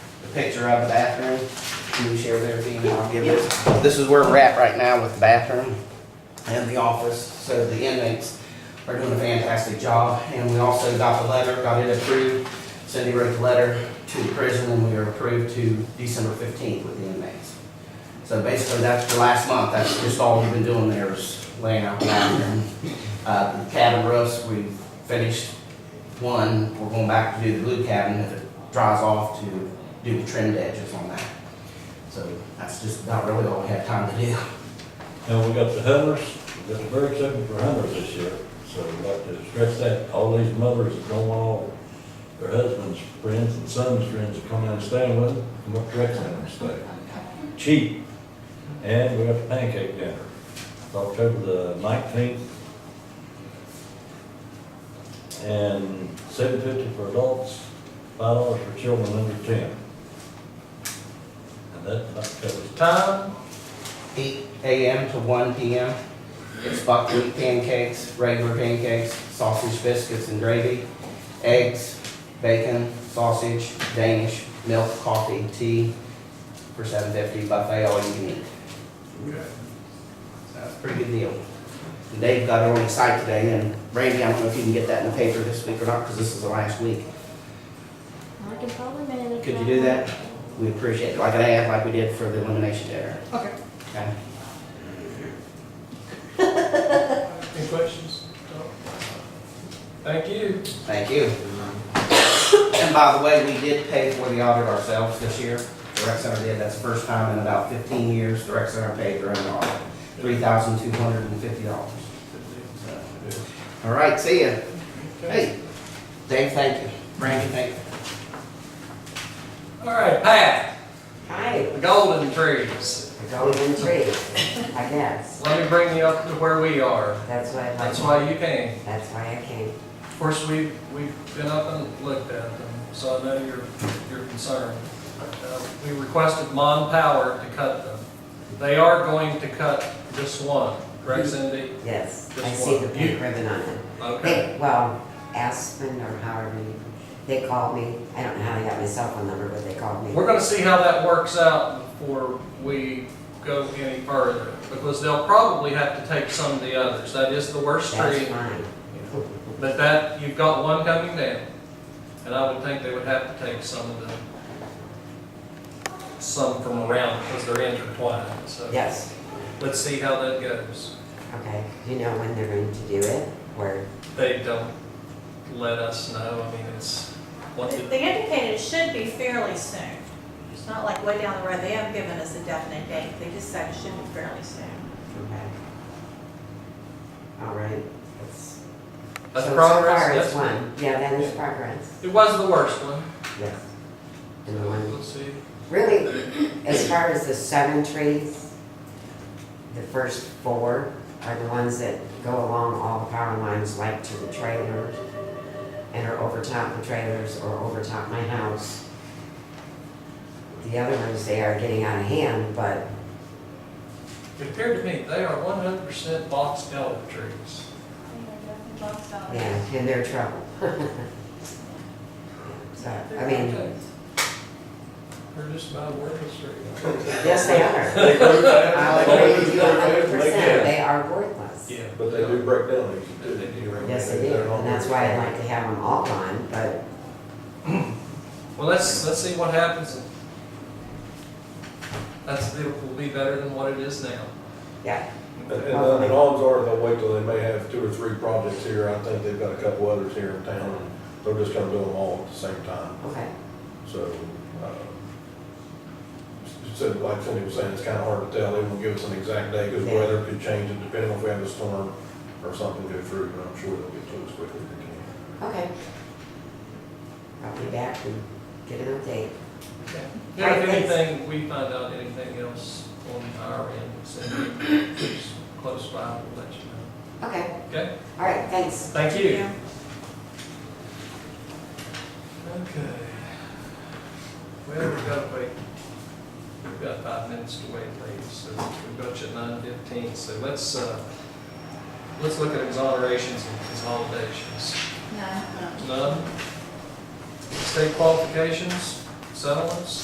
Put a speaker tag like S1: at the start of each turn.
S1: picture of the bathroom. Can you share with everything, and I'll give it. This is where we're at right now with the bathroom and the office, so the inmates are doing a fantastic job. And we also got the letter, got it approved. Cindy wrote the letter to the prison, and we are approved to December fifteenth with the inmates. So basically, that's the last month, that's just all we've been doing there is laying out the bathroom. Uh, the cabin roofs, we finished one, we're going back to do the blue cabin, if it dries off, to do the trimmed edges on that. So that's just about really all we have time to do.
S2: And we got the hunters, we got the bird season for hunters this year, so we'd like to stress that, all these mothers that don't want all their husbands, friends, and sons' friends to come out and stay with them, come up to Rec Center and stay. Cheap, and we got the pancake dinner, It's October the nineteenth. And seven fifty for adults, five dollars for children under ten. And that about covers time,
S1: Eight AM to one PM, it's buckwheat pancakes, regular pancakes, sausage biscuits and gravy, eggs, bacon, sausage, Danish, milk, coffee, tea, for seven fifty buffet, all you can eat. So it's a pretty good deal. And Dave got it on the site today, and Randy, I don't know if you can get that in the paper this week or not, because this is the last week.
S3: I can probably manage.
S1: Could you do that? We appreciate it, like I asked, like we did for the elimination dinner,
S4: Okay.
S1: okay?
S5: Any questions? No? Thank you.
S1: Thank you. And by the way, we did pay for the audit ourselves this year. The rec center did, that's the first time in about fifteen years the rec center paid their own audit, three thousand two hundred and fifty dollars. All right, see ya. Hey, Dave, thank you. Randy, thank you.
S5: All right, Pat,
S6: Hi,
S5: the golden trees.
S6: the golden tree, I guess.
S5: Let me bring you up to where we are.
S6: That's why,
S5: That's
S6: I-
S5: why you came.
S6: that's why I came.
S5: Of course, we've, we've been up and looked at them, so I know your, your concern. Uh, We requested Mon Power to cut them. They are going to cut this one, correct Cindy?
S6: Yes, I
S5: Just
S6: see the
S5: one.
S6: pink ribbon on it.
S5: Okay.
S6: They, well, Aspen or however you, they called me. I don't know how they got my cell phone number, but they called me.
S5: We're gonna see how that works out before we go any further, because they'll probably have to take some of the others, that is the worst
S6: That's
S5: tree.
S6: fine.
S5: But that, you've got one coming down, and I would think they would have to take some of the, some from around, because they're intertwined, so.
S6: Yes,
S5: Let's see how that goes.
S6: okay. Do you know when they're going to do it? Where?
S5: They don't let us know, I mean, it's, what
S7: They
S5: did
S7: they indicated it should be fairly soon. It's not like way down the road, they haven't given us a definite date, they just said it should be fairly soon.
S6: Okay. All right. That's
S5: that's
S6: so- so
S5: progress,
S6: far it's
S5: that's-
S6: one. Yeah, that is progress.
S5: It was the worst one,
S6: Yes. And the one
S5: we'll see.
S6: Really, as far as the seven trees, the first four are the ones that go along all the power lines, like to the trailers, and are over top the trailers or over top my house. The other ones, they are getting out of hand, but
S5: It appeared to me they are one hundred percent box elder trees.
S6: Yeah, and they're trouble. So, I mean,
S5: They're just about worthless trees.
S6: yes, they are.
S2: They break down.
S6: I'll agree with you a hundred
S2: They
S6: percent,
S2: can.
S6: they are worthless.
S5: Yeah.
S2: But they do break down, they do.
S5: They do break
S6: Yes, they do, and that's why I like to have them all gone, but
S5: Well, let's, let's see what happens. and That's, it will be better than what it is now.
S6: Yeah,
S2: And, and I mean, odds are they'll wait till they may have two or three projects here. I think they've got a couple others here in town. and They're just gonna do them all at the same time,
S6: okay,
S2: so, uh, so like Cindy was saying, it's kinda hard to tell. They won't give us an exact day because
S6: Yeah.
S2: weather could change it depending on if we have a storm or something go through, but I'm sure they'll get to us quickly if they can.
S6: okay. I'll be back and get an update.
S5: If
S6: All right, thanks.
S5: anything, we find out anything else on our end, Cindy, who's close by, we'll let you know.
S6: Okay,
S5: Okay?
S6: all right, thanks.
S5: Thank you. Okay. Well, we've got to wait, we've got five minutes to wait, ladies, so we've got you at nine fifteen, so let's, uh, let's look at exonerations and consolidations.
S3: No.
S5: None? State qualifications, settlements?